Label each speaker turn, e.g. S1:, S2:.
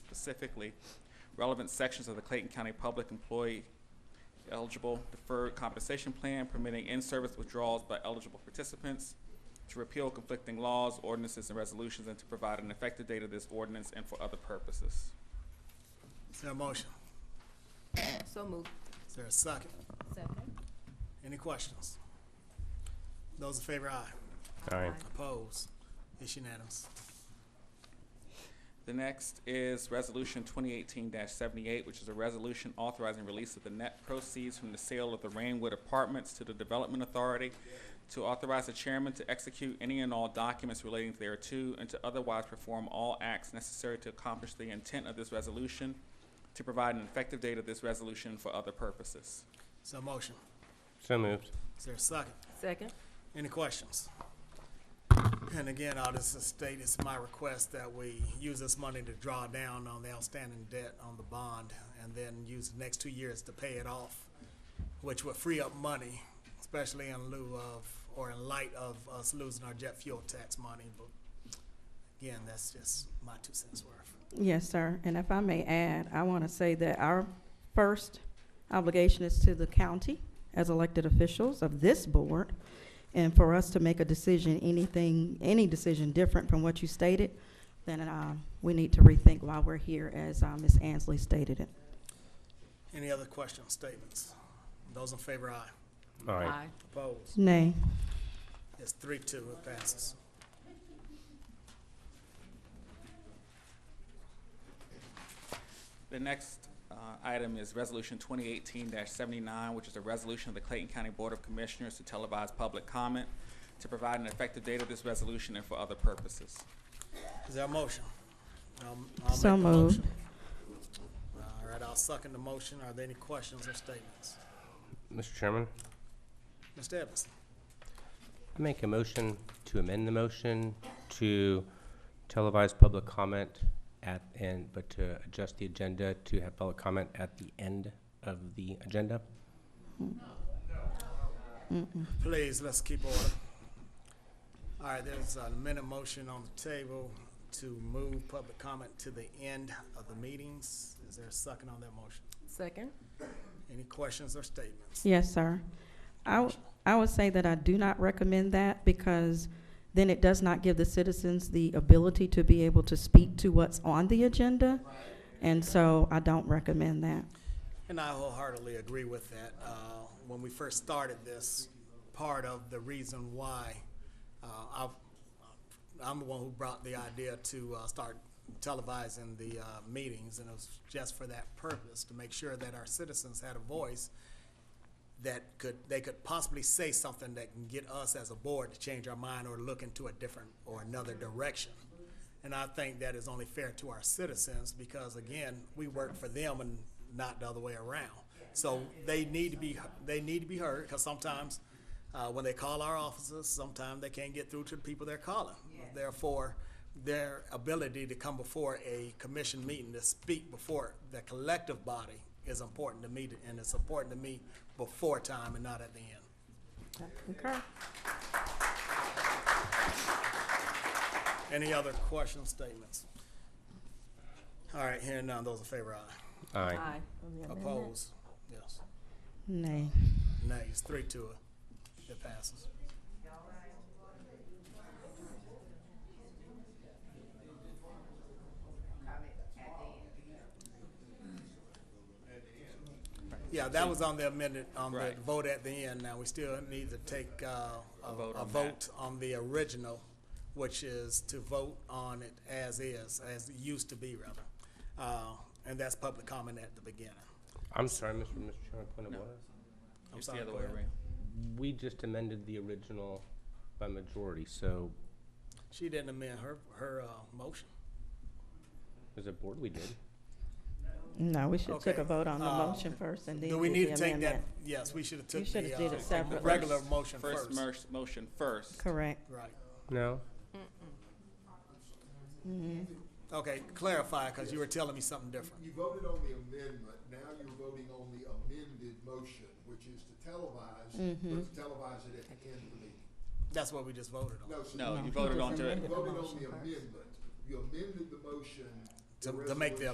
S1: specifically relevant sections of the Clayton County Public Employee Eligible Deferred Compensation Plan permitting in-service withdrawals by eligible participants, to repeal conflicting laws, ordinances, and resolutions, and to provide an effective date of this ordinance and for other purposes.
S2: Is there a motion?
S3: So moved.
S2: Is there a second?
S3: Second.
S2: Any questions? Those in favor, aye.
S4: Aye.
S2: Opposed? It's unanimous.
S1: The next is Resolution 2018-78, which is a resolution authorizing release of the net proceeds from the sale of the Rainwood Apartments to the Development Authority to authorize the chairman to execute any and all documents relating thereto and to otherwise perform all acts necessary to accomplish the intent of this resolution, to provide an effective date of this resolution for other purposes.
S2: Is there a motion?
S4: So moved.
S2: Is there a second?
S3: Second.
S2: Any questions? And again, all this is stated, it's my request that we use this money to draw down on the outstanding debt on the bond and then use the next two years to pay it off, which would free up money, especially in lieu of, or in light of us losing our jet fuel tax money. But again, that's just my two cents worth.
S5: Yes, sir. And if I may add, I want to say that our first obligation is to the county as elected officials of this board. And for us to make a decision, anything, any decision different from what you stated, then uh, we need to rethink why we're here, as uh, Ms. Ansley stated it.
S2: Any other questions, statements? Those in favor, aye.
S4: Aye.
S2: Opposed?
S5: Nay.
S2: It's three, two, it passes.
S1: The next uh, item is Resolution 2018-79, which is a resolution of the Clayton County Board of Commissioners to televise public comment, to provide an effective date of this resolution and for other purposes.
S2: Is there a motion? Um, I'll
S5: So
S2: make the
S5: moved.
S2: motion. All right, I'll second the motion. Are there any questions or statements?
S4: Mr. Chairman,
S2: Mr. Evans?
S4: I make a motion to amend the motion to televise public comment at, and, but to adjust the agenda to have public comment at the end of the agenda.
S2: Please, let's keep order. All right, there's an amended motion on the table to move public comment to the end of the meetings. Is there a second on that motion?
S3: Second.
S2: Any questions or statements?
S5: Yes, sir. I, w- I would say that I do not recommend that because then it does not give the citizens the ability to be able to speak to what's on the agenda. And so I don't recommend that.
S2: And I wholeheartedly agree with that. Uh, When we first started this, part of the reason why uh, I, I'm the one who brought the idea to uh, start televising the uh, meetings, and it was just for that purpose, to make sure that our citizens had a voice that could, they could possibly say something that can get us as a board to change our mind or look into a different or another direction. And I think that is only fair to our citizens because again, we work for them and not the other way around. So they need to be, they need to be heard because sometimes uh, when they call our offices, sometimes they can't get through to the people they're calling. Therefore, their ability to come before a commission meeting to speak before the collective body is important to me, and it's important to me before time and not at the end.
S5: Concur.
S2: Any other questions, statements? All right, hearing none, those in favor, aye.
S4: Aye.
S2: Opposed? Yes.
S5: Nay.
S2: Nay, it's three to it. It passes. Yeah, that was on the amended, on the
S1: Right.
S2: vote at the end. Now, we still need to take, uh,
S1: A vote
S2: a
S1: on that.
S2: vote on the original, which is to vote on it as is, as it used to be, rather. Uh, and that's public comment at the beginning.
S4: I'm sorry, Mr. Mr. Chairman, point of
S1: No.
S4: order.
S2: I'm
S1: It's
S2: sorry,
S1: the other
S2: go
S1: way
S2: ahead.
S1: around.
S4: We just amended the original by majority, so
S2: She didn't amend her, her, uh, motion.
S4: as a board, we did.
S5: No, we should take
S2: Okay.
S5: a vote on the
S2: Uh,
S5: motion first and then
S2: Do we need to
S5: do the
S2: take that?
S5: amendment.
S2: Yes, we should have
S5: You
S2: took
S5: should
S2: the,
S5: have
S2: uh,
S5: did it
S2: the
S5: separately.
S2: regular motion
S1: First
S2: first.
S1: mer- motion first.
S5: Correct.
S2: Right.
S4: No?
S2: Okay, clarify, because you were telling me something different.
S6: You voted on the amendment, now you're voting on the amended motion, which is to televise, but to televise it at the end of the meeting.
S2: That's what we just voted on.
S6: so
S1: No, you voted onto it.
S6: You voted on the amendment, you amended the motion.
S2: To- to
S6: the
S2: make the
S6: resolution-